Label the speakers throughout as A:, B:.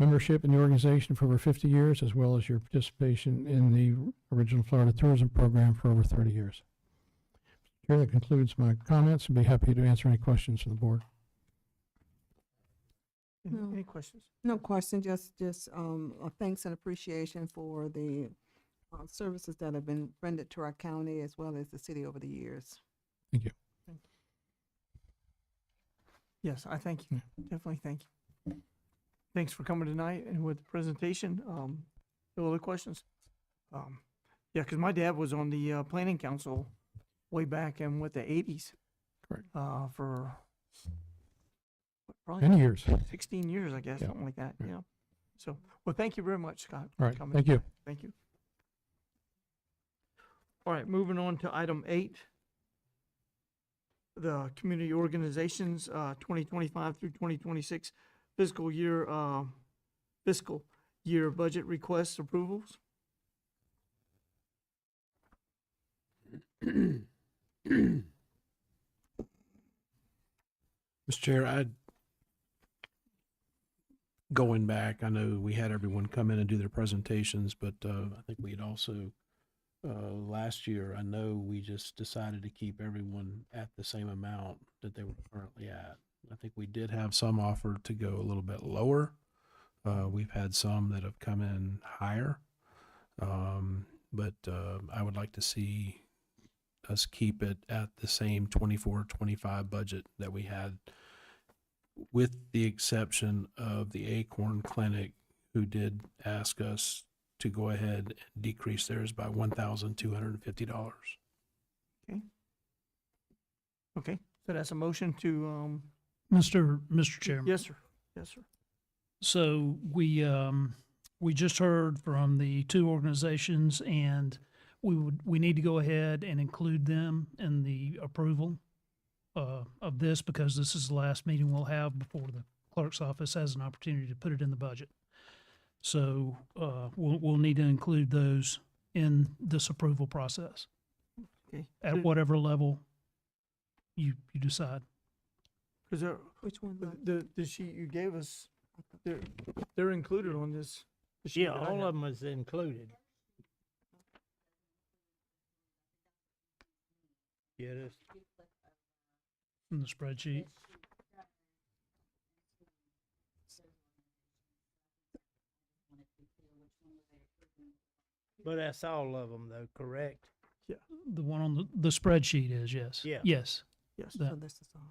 A: membership in the organization for over 50 years, as well as your participation in the original Florida Tourism Program for over 30 years. Chair, that concludes my comments. I'd be happy to answer any questions from the board.
B: Any-
C: No.
B: Any questions?
C: No question, just, just, um, a thanks and appreciation for the, uh, services that have been rendered to our county as well as the city over the years.
B: Yes, I thank
A: Yeah.
B: you. Definitely thank you. Thanks for coming tonight and with the presentation. Um, no other questions? Um, yeah, because my dad was on the uh, planning council way back in what the eighties.
A: Correct.
B: Uh, for what, probably
A: Many years. All
B: sixteen years, I guess,
A: Yeah.
B: something like that.
A: Yeah.
B: Yeah. So, well, thank you very much, Scott. for
A: right,
B: coming
A: thank you.
B: tonight. Thank you. All right, moving on to item eight. The community organizations, uh, twenty twenty-five through twenty twenty-six fiscal year, uh, fiscal year budget requests approvals.
D: Mr. Chair, I, going back, I know we had everyone come in and do their presentations, but uh, I think we had also, uh, last year, I know we just decided to keep everyone at the same amount that they were currently at. I think we did have some offer to go a little bit lower. Uh, We've had some that have come in higher. Um, But uh, I would like to see us keep it at the same 24, 25 budget that we had with the exception of the Acorn Clinic, who did ask us to go ahead and decrease theirs by one thousand two hundred and fifty dollars.
B: Okay, so that's a motion to, um,
E: Mr. Mr. Chairman.
B: yes, sir. Yes, sir.
E: So we, um, we just heard from the two organizations and we would, we need to go ahead and include them in the approval uh, of this because this is the last meeting we'll have before the clerk's office has an opportunity to put it in the budget. So, uh, we'll, we'll need to include those in this approval process
B: Okay.
E: at whatever level you, you decide.
B: Is there,
C: Which one?
B: the- the, the sheet you gave us, they're, they're included on this. the sheet
F: Yeah,
B: that I
F: all
B: have.
F: of them is included. Get us
E: in the spreadsheet.
F: but that's all of them though, correct?
E: The one on the, the spreadsheet is, yes.
F: Yeah.
E: Yes.
B: Yes.
E: that.
C: So this is all.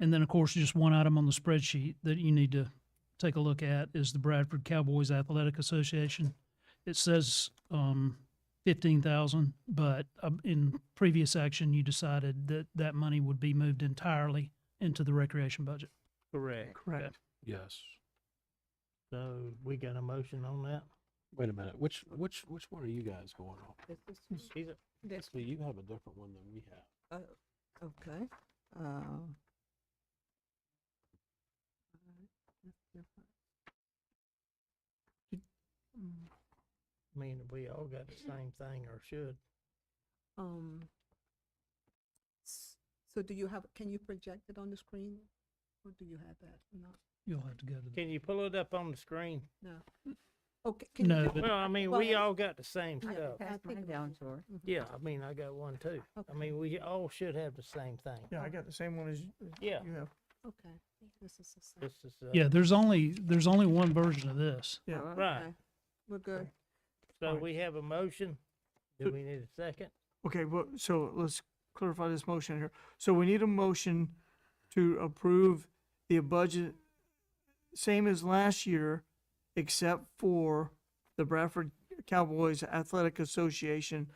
E: And then, of course, just one item on the spreadsheet that you need to take a look at is the Bradford Cowboys Athletic Association. It says, um, fifteen thousand, but um, in previous action, you decided that that money would be moved entirely into the recreation budget.
F: Correct.
B: Correct.
D: Yes.
F: So we got a motion on that?
D: Wait a minute, which, which, which one are you guys going on?
C: This is-
F: He's a-
C: this-
D: See, you have a different one than we have.
C: Okay, uh. Mm,
F: I mean, we all got the same thing or should.
C: Um. s- So do you have, can you project it on the screen? Or do you have that? No,
E: You'll have to go to the,
F: Can you pull it up on the screen?
C: no. Okay. can you
E: no,
C: do-
E: but
F: Well, I mean,
C: Well,
F: we
C: it's-
F: all got the same
C: yeah,
F: stuff.
C: I think- Mhm.
F: Yeah, I mean, I got one too. I
C: Okay.
F: mean, we all should have the same thing.
B: Yeah, I got the same one as as
F: Yeah.
B: you have.
C: Okay, this is the same.
F: This is, uh,
E: yeah, there's only, there's only one version of this.
B: Yeah.
C: Oh,
F: Right.
C: okay. We're good.
F: so
B: fine.
F: we have a motion. Do we need a second?
B: Okay, well, so let's clarify this motion here. So we need a motion to approve the budget same as last year, except for the Bradford Cowboys Athletic Association.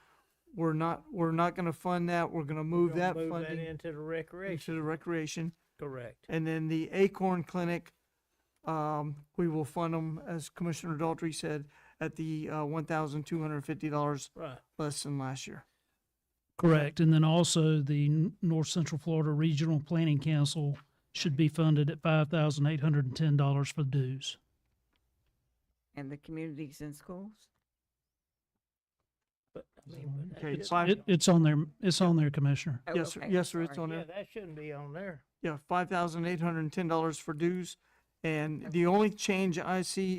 B: We're not, we're not gonna fund that. We're gonna move
F: Gonna
B: that funding
F: Into the recreation,
B: into the recreation.
F: correct.
B: And then the Acorn Clinic, um, we will fund them, as Commissioner Daltrey said, at the, uh, one thousand two hundred and fifty dollars
F: Right,
B: less than last year.
E: Correct, and then also the N- North Central Florida Regional Planning Council should be funded at five thousand eight hundred and ten dollars for dues.
G: And the communities and schools?
F: but, I
E: Is that
F: mean,
E: one?
F: but that
B: Okay,
F: shouldn't
B: it's five-
E: It, it's on there, it's on there, Commissioner.
G: Oh,
B: Yes, sir.
G: okay,
B: yes, sir, it's
G: sorry.
B: on
F: Yeah,
B: there.
F: that shouldn't be on there.
B: Yeah, five thousand eight hundred and ten dollars for dues And the only change I see